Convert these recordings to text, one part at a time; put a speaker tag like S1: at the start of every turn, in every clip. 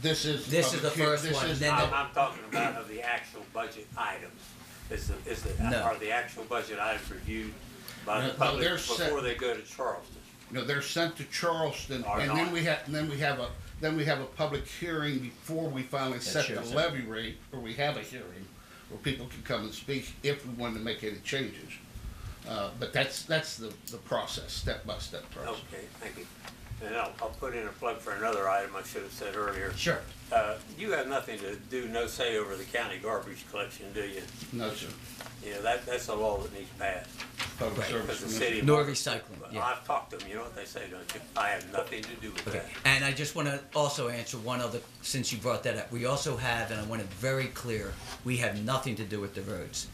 S1: This is.
S2: This is the
S1: cure-
S2: first
S1: this
S2: one,
S1: is-
S2: then
S1: uh,
S2: the-
S3: I'm, I'm talking about of the actual budget items. Is the, is the,
S2: No.
S3: are the actual budget items reviewed by
S1: No,
S3: the
S1: no,
S3: public
S1: they're set.
S3: before they go to Charleston?
S1: No, they're sent to Charleston,
S3: Are
S1: and then
S3: not.
S1: we have, and then we have a, then we have a public hearing before we finally set the
S2: shows it.
S1: levy rate, or we have a hearing, where people can come and speak if we want to make any changes. Uh, but that's, that's the, the process, step by step
S2: Oh.
S1: process.
S3: Okay, thank you. And I'll, I'll put in a plug for another item I should have said earlier.
S2: Sure.
S3: Uh, you have nothing to do, no say over the county garbage collection, do you?
S1: No, sir,
S3: You know, that, that's a law that needs passed.
S1: public
S2: Right.
S1: service.
S3: Because the
S1: commission.
S3: city.
S2: Nor recycling,
S3: Well,
S2: yeah.
S3: I've talked to them, you know what they say, don't you? I have nothing to do with
S2: Okay,
S3: that.
S2: and I just want to also answer one other, since you brought that up, we also have, and I want it very clear, we have nothing to do with the roads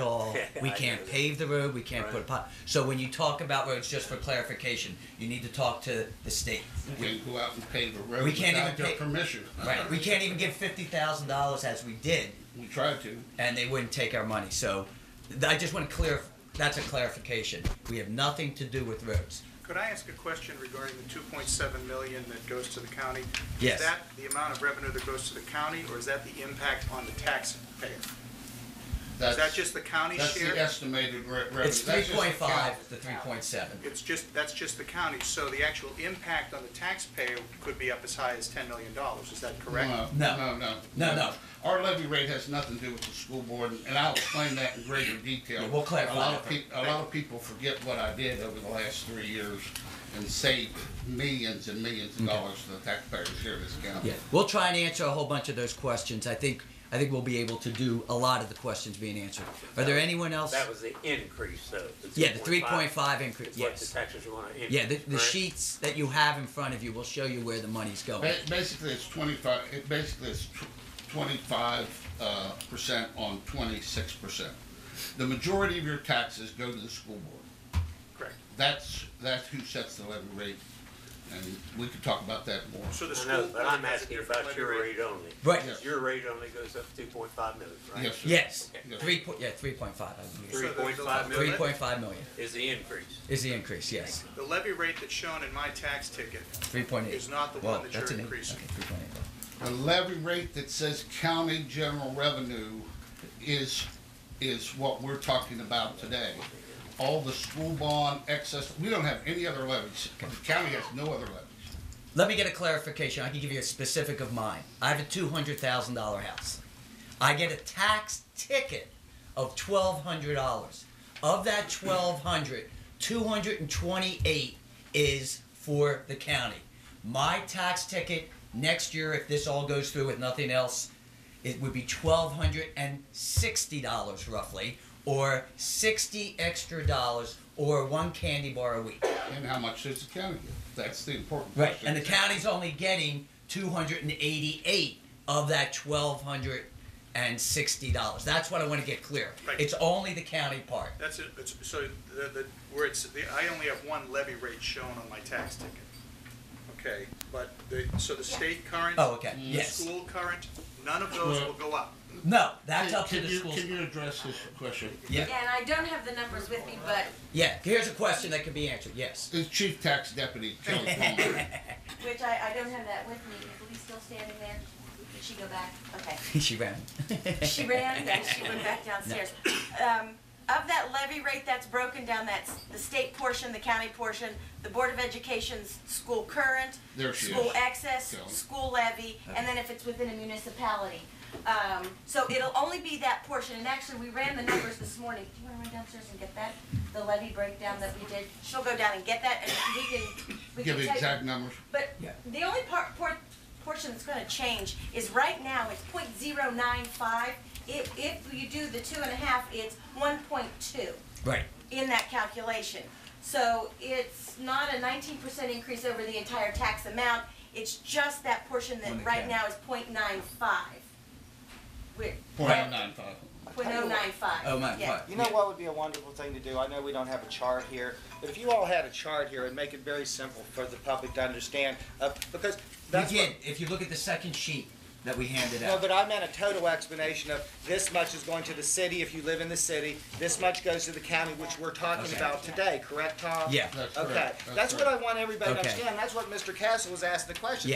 S2: all. We
S3: I know
S2: can't
S3: that.
S2: pave the road, we can't put a
S3: Right.
S2: pot, so when you talk about roads, just for clarification, you need to talk to the state.
S1: We can go out and pave a road
S2: We can't
S1: without
S2: even
S1: their
S2: pay-
S1: permission.
S2: Right, we can't even give fifty thousand dollars as we did,
S1: We tried to.
S2: and they wouldn't take our money, so th- I just want to clear, that's a clarification. We have nothing to do with roads.
S4: Could I ask a question regarding the 2.7 million that goes to the county?
S2: Yes.
S4: Is that the amount of revenue that goes to the county, or is that the impact on the taxpayer? Is that just the county
S1: That's the
S4: share?
S1: estimated re- revenue.
S2: It's
S1: That's
S2: three
S1: just the
S2: point five
S1: count.
S2: to three point seven.
S4: It's just, that's just the county, so the actual impact on the taxpayer could be up as high as $10 million, is that correct?
S2: No.
S1: No, no.
S2: No, no.
S1: Our levy rate has nothing to do with the school board, and I'll explain that in greater detail.
S2: Yeah, we'll clarify
S1: A lot of
S2: that.
S1: people, a lot of people forget what I did over the last three years and saved millions and millions of dollars to the taxpayers here in this county.
S2: Yeah, we'll try and answer a whole bunch of those questions. I think I think we'll be able to do a lot of the questions being answered. Are there anyone else?
S3: That was the increase, though.
S2: yeah, the three point five
S3: It's
S2: increase.
S3: what the
S2: Yes.
S3: taxes want to increase.
S2: Yeah, the, the
S3: right?
S2: sheets that you have in front of you will show you where the money's going.
S1: Ba- Basically, it's twenty-five, it basically it's twenty-five, uh, percent on twenty-six percent. The majority of your taxes go to the school board.
S4: Correct.
S1: That's, that's who sets the levy rate, and we could talk about that more.
S4: So the
S3: I
S4: school.
S3: know, but I'm
S4: has a
S3: asking
S4: different
S3: about
S4: levy
S3: your
S4: rate.
S3: rate only.
S2: Right.
S1: Yes.
S3: Your rate only goes up two point five million, right?
S1: Yes, sir.
S2: Yes.
S1: Okay.
S2: Three point yeah three point five.
S4: So
S3: Three
S4: the-
S3: point
S4: the-
S3: five
S2: Three
S3: million
S2: point five million
S3: is the increase.
S2: is the increase. Yes.
S4: The levy rate that's shown in my tax ticket
S2: Three point eight.
S4: Is not the
S2: well,
S4: one that
S2: that's
S4: you're
S2: an
S4: increasing.
S2: Okay, three point eight.
S1: The levy rate that says county general revenue is, is what we're talking about today. All the school bond excess, we don't have any other levies. The county has no other levies.
S2: Let me get a clarification. I can give you a specific of mine. I have a two hundred thousand dollar house. I get a tax ticket of twelve hundred dollars. Of that twelve hundred, two hundred and twenty-eight is for the county. My tax ticket next year, if this all goes through with nothing else, it would be twelve hundred and sixty dollars roughly, or sixty extra dollars, or one candy bar a week.
S1: And how much does the county get? That's the important
S2: Right,
S1: question.
S2: and the county's only getting two hundred and eighty-eight of that twelve hundred and sixty dollars. That's what I want to get clear.
S4: Right.
S2: It's only the county part.
S4: That's it, it's, so the, the, where it's, the, I only have one levy rate shown on my tax ticket. Okay, but the, so the state current.
S2: Oh, okay,
S4: the
S2: yes.
S4: School current, none of those will go up.
S2: No, that's up to
S1: Can
S2: the
S1: you-
S2: schools.
S1: Can you address this question?
S2: Yeah,
S5: Yeah, and I don't have the numbers with me, but
S2: yeah. Here's a question that can be answered. Yes.
S1: It's Chief Tax Deputy Kelly Palmer.
S5: which I, I don't have that with me. Is Lee still standing there? Did she go back? Okay.
S2: she ran.
S5: She ran, then she went back downstairs. Um, of that levy rate that's broken down, that's the state portion, the county portion, the Board of Education's school current,
S1: There she
S5: school
S1: is.
S5: excess,
S1: Go.
S5: school levy, and then if it's within a municipality. Um, so it'll only be that portion, and actually, we ran the numbers this morning. Do you wanna run downstairs and get that, the levy breakdown that we did? She'll go down and get that, and we can, we can
S1: Give
S5: tell you.
S1: exact numbers.
S5: But
S2: Yeah.
S5: the only part, por portion that's gonna change is right now, it's point zero nine five. If, if you do the two and a half, it's one point two
S2: Right.
S5: in that calculation. So it's not a nineteen percent increase over the entire tax amount, it's just that portion
S2: On the
S5: that right
S2: cap.
S5: now is point nine five. With,
S1: Point nine five.
S5: point oh nine five.
S2: Oh my God.
S6: You know what would be a wonderful thing to do? I know we don't have a chart here, but if you all had a chart here, it'd make it very simple for the public to understand, uh, because
S2: We
S6: that's what.
S2: did. If you look at the second sheet that we handed
S6: No,
S2: out.
S6: but I meant a total explanation of this much is going to the city if you live in the city, this much goes to the county, which we're talking
S2: Okay.
S6: about today, correct, Tom?
S2: Yeah.
S1: That's
S6: Okay,
S1: correct.
S6: that's what
S1: correct.
S6: I want everybody to
S2: Okay.
S6: understand, that's what Mr. Castle was asking the question.